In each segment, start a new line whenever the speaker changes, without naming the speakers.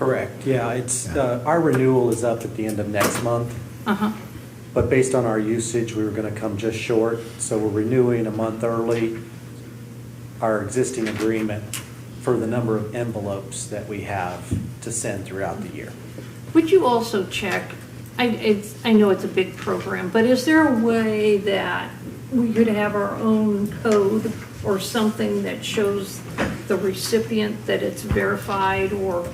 Correct, yeah, it's, uh, our renewal is up at the end of next month,
Uh-huh,
but based on our usage, we were gonna come just short, so we're renewing a month early our existing agreement for the number of envelopes that we have to send throughout the year.
would you also check, I, it's, I know it's a big program, but is there a way that we could have our own code or something that shows the recipient that it's verified or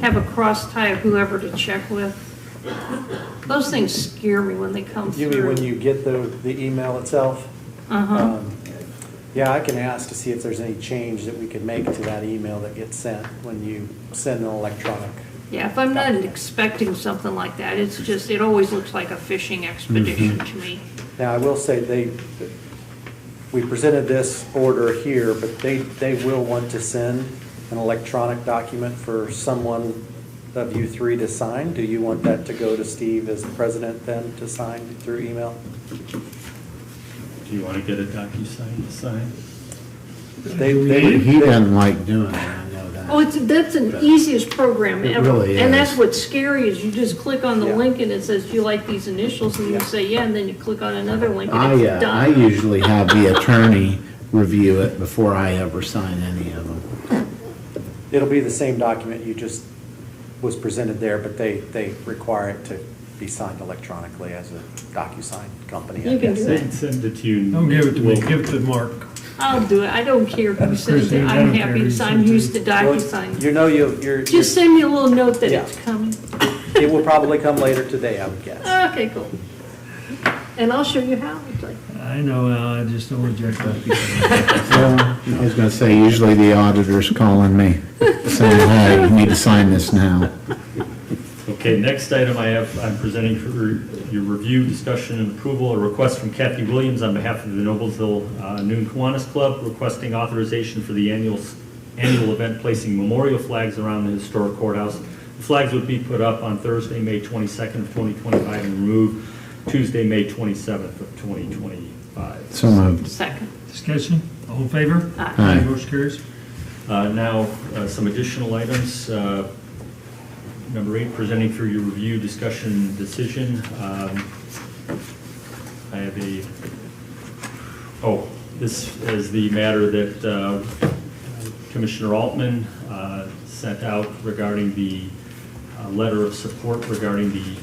have a cross tie of whoever to check with? Those things scare me when they come through.
You mean when you get the, the email itself?
Uh-huh,
Um, Yeah, I can ask to see if there's any change that we could make to that email that gets sent when you send an electronic.
yeah, if I'm not expecting something like that, it's just, it always looks like a fishing expedition to me.
Now, I will say they, we presented this order here, but they, they will want to send an electronic document for someone of you three to sign. Do you want that to go to Steve as the president then to sign through email?
Do you want to get a DocuSign to sign?
They,
He he
they,
doesn't like doing it, I know that.
Oh, it's, that's an easiest program
It
ever.
really
And that's
is.
what's scary, is you just click on the
Yeah.
link and it says, do you like these initials? And
Yeah.
you say, yeah, and then you click on another link and
I,
it's
uh, I
done.
usually have the attorney review it before I ever sign any of them.
it'll be the same document you just, was presented there, but they, they require it to be signed electronically as a DocuSign company, I
You can
guess.
do
Send,
it.
send it to you.
Don't give it to me,
We'll-
give it to Mark.
I'll do it. I don't care who sends it.
Christine, I
I'm
don't
happy
care
to
who
sign,
sends it.
used to
Well,
DocuSign.
You know, you, you're,
Just send me a little note that
Yeah.
it's coming.
it will probably come later today, I would guess.
Okay, cool. And I'll show you how. It's like,
I know, Al, I just don't reject that.
Well, I was gonna say, usually the auditor's calling me, saying, hey, you need to sign this now.
Okay, next item I have, I'm presenting for your review, discussion, and approval, a request from Kathy Williams on behalf of the Noblesville uh, Noon Kiwanis Club requesting authorization for the annual, annual event placing memorial flags around the historic courthouse. The Flags would be put up on Thursday, May 22nd of 2025 and removed Tuesday, May 27th of 2025.
So moved.
Second.
Discussion, all in favor?
Aye.
Aye.
Motion carries.
Uh, Now, uh, some additional items. Uh, Number eight, presenting for your review, discussion, decision. Um, I have a, oh, this is the matter that uh, Commissioner Altman uh, sent out regarding the uh, letter of support regarding the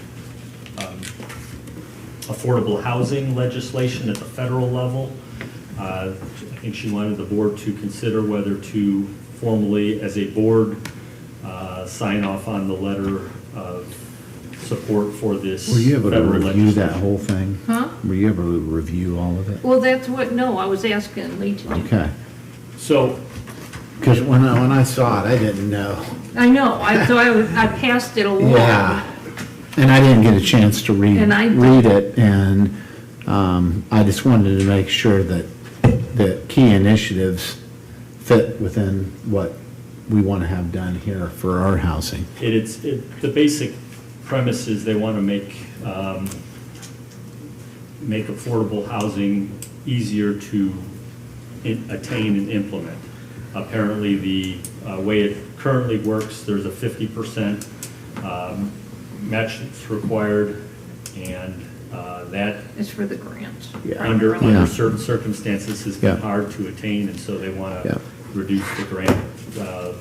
um, affordable housing legislation at the federal level. Uh, I think she wanted the board to consider whether to formally, as a board, uh, sign off on the letter of support for this.
Were you able to
federal
review that
legislation.
whole thing?
Huh?
Were you able to review all of it?
Well, that's what, no, I was asking Lee to do.
Okay,
So,
because when I, when I saw it, I didn't know.
I know, I, so I, was- I passed it along.
Yeah, and I didn't get a chance to read,
And I-
read it, and um, I just wanted to make sure that, that key initiatives fit within what we want to have done here for our housing.
It is, it, the basic premise is they want to make, um, make affordable housing easier to i- attain and implement. Apparently, the uh, way it currently works, there's a fifty percent um, match that's required, and uh, that,
It's for the grants.
Yeah.
under,
primarily.
under
Yeah.
certain circumstances, has been
Yeah.
hard to attain, and so they want
Yeah.
to reduce the grant uh,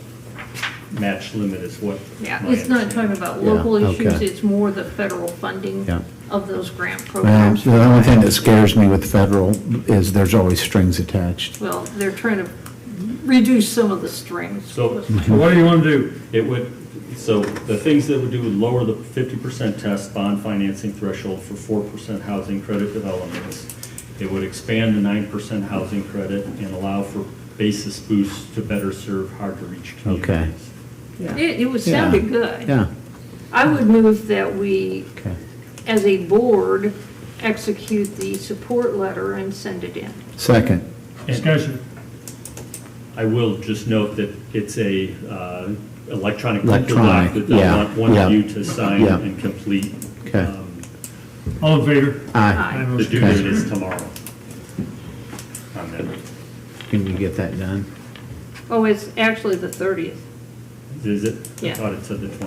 match limit is what.
Yeah,
my
it's not
understanding
talking about
Yeah,
local issues,
okay.
it's more the federal funding
Yeah.
of those grant
Well,
programs.
the only thing that scares me with federal is there's always strings attached.
Well, they're trying to reduce some of the strings.
So-
So what do you want to do?
It would, so the things that would do would lower the fifty percent test bond financing threshold for four percent housing credit developments. It would expand the nine percent housing credit and allow for basis boosts to better serve hard-to-reach communities.
It, it was sounding
Yeah.
good.
Yeah,
I would move that we,
okay.
as a board, execute the support letter and send it in.
Second,
Discussion,
I will just note that it's a uh, electronic legal
Electronic,
doc that they
yeah,
want one
yeah,
of you to sign
yeah.
and complete.
Okay.
Um,
all in favor?
aye.
Aye.
The due
Okay.
date is tomorrow. On that.
Can you get that done?
Oh, it's actually the 30th.
Is it?
Yeah.
I thought it said the